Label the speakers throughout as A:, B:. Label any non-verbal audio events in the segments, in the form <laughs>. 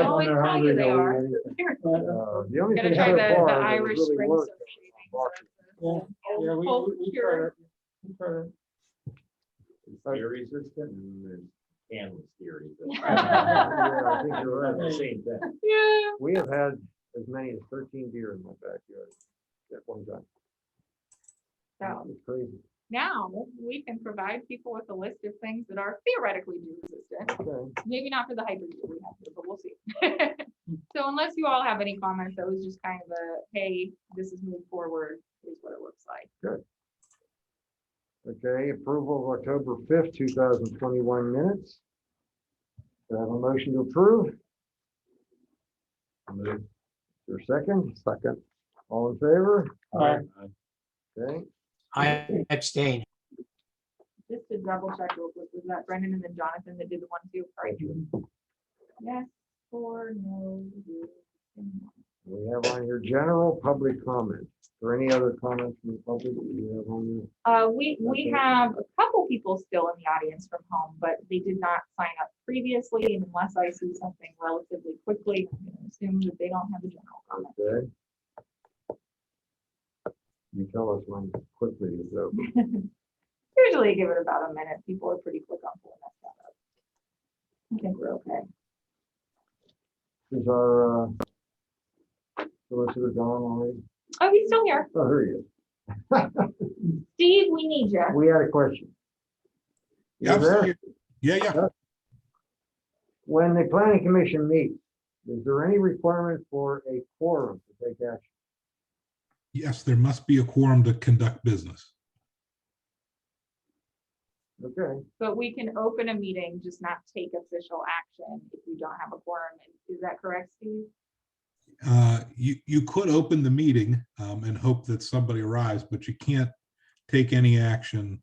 A: up
B: always
A: when they're
B: tell
A: hungry.
B: you they
A: they'll eat
B: are. <laughs>
A: anything.
C: Uh, The only
B: Gonna
C: thing.
B: try
C: so
B: the, the
C: far that has
B: Irish
C: really
B: Spring.
C: worked is
B: Society.
C: market.
A: Yeah, yeah, we-
B: Cold
A: we- we
B: cure.
A: try to- we try to-
C: It's Very resistant and there's
D: Animal
B: <laughs>
C: <laughs>
D: theory.
C: Yeah, I think you're right.
D: The same thing.
B: Yeah.
C: We have had as many as thirteen deer in my backyard at one time.
B: So
C: It's crazy.
B: now we can provide people with a list of things that are theoretically deer resistant.
C: Okay.
B: Maybe not for the hybrid deer we have, here, but we'll see. <laughs> So unless you all have any comments, that was just kind of a, hey, this is moved forward, here's what it looks like.
C: Okay, approval of October fifth, two thousand twenty-one minutes. Do I have a motion to approve?
D: Move.
C: Your second, second, all in favor?
A: Aye.
C: Okay,
E: I abstain.
B: Just to double check, real quick, was that Brendan and then Jonathan that did the one two? Sorry. Yes, or no. yes, and no.
C: we have on your general public comment, or any other comments from the public that you have on your
B: Uh, we, we
C: Okay.
B: have a couple people still in the audience from home, but they did not sign up previously and unless I see something relatively quickly. I'm gonna Assume that they don't have a general comment.
C: Okay. You tell us when quickly is over.
B: Usually give it about a minute. People are pretty quick on pulling that stuff up. I think we're okay.
C: Is our uh, solicitor gone already?
B: Oh, he's still here.
C: Oh, here he is.
B: Steve, we need you.
C: We had a question.
F: Yeah, I'm
C: Is there-
F: still here. yeah, yeah.
C: When the planning commission meets, is there any requirement for a quorum to take action?
F: Yes, there must be a quorum to conduct business.
C: Okay,
B: But we can open a meeting, just not take official action if you don't have a quorum. Is that correct, Steve?
F: Uh, You, you could open the meeting um, and hope that somebody arrives, but you can't take any action.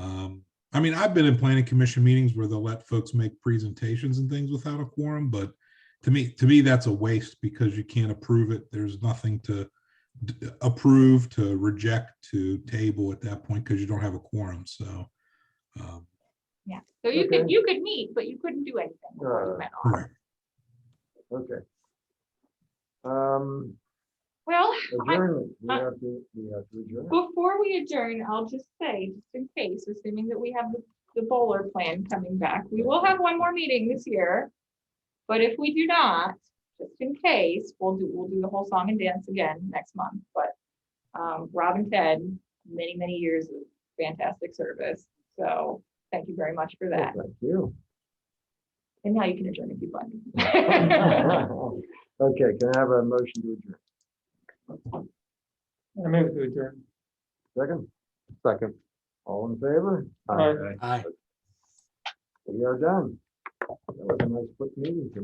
F: Um, I mean, I've been in planning commission meetings where they'll let folks make presentations and things without a quorum, but to me, to me, that's a waste because you can't approve it. There's nothing to d- approve, to reject, to table at that point because you don't have a quorum, so. um,
B: Yeah. So you could,
C: Okay.
B: you could meet, but you couldn't do anything before you
C: Uh,
B: met off.
F: Correct.
C: okay. Um,
B: Well, I-
C: adjournment, we
B: I-
C: have to, we have to adjourn.
B: Before we adjourn, I'll just say, just in case, assuming that we have the- the bowler plan coming back, we will have one more meeting this year. But if we do not, just in case, we'll do, we'll do the whole song and dance again next month, but um, Rob and Ted, many, many years of fantastic service. So thank you very much for
C: Oh,
B: that.
C: Thank you. <laughs>
B: And now you can adjourn if you'd like.
C: <laughs>
B: <laughs>
C: Okay, can I have a motion to adjourn?
A: I move to adjourn.
C: Second? Second. All in favor?
A: Aye.
E: Aye.
C: We are done. That was a nice quick meeting. tonight.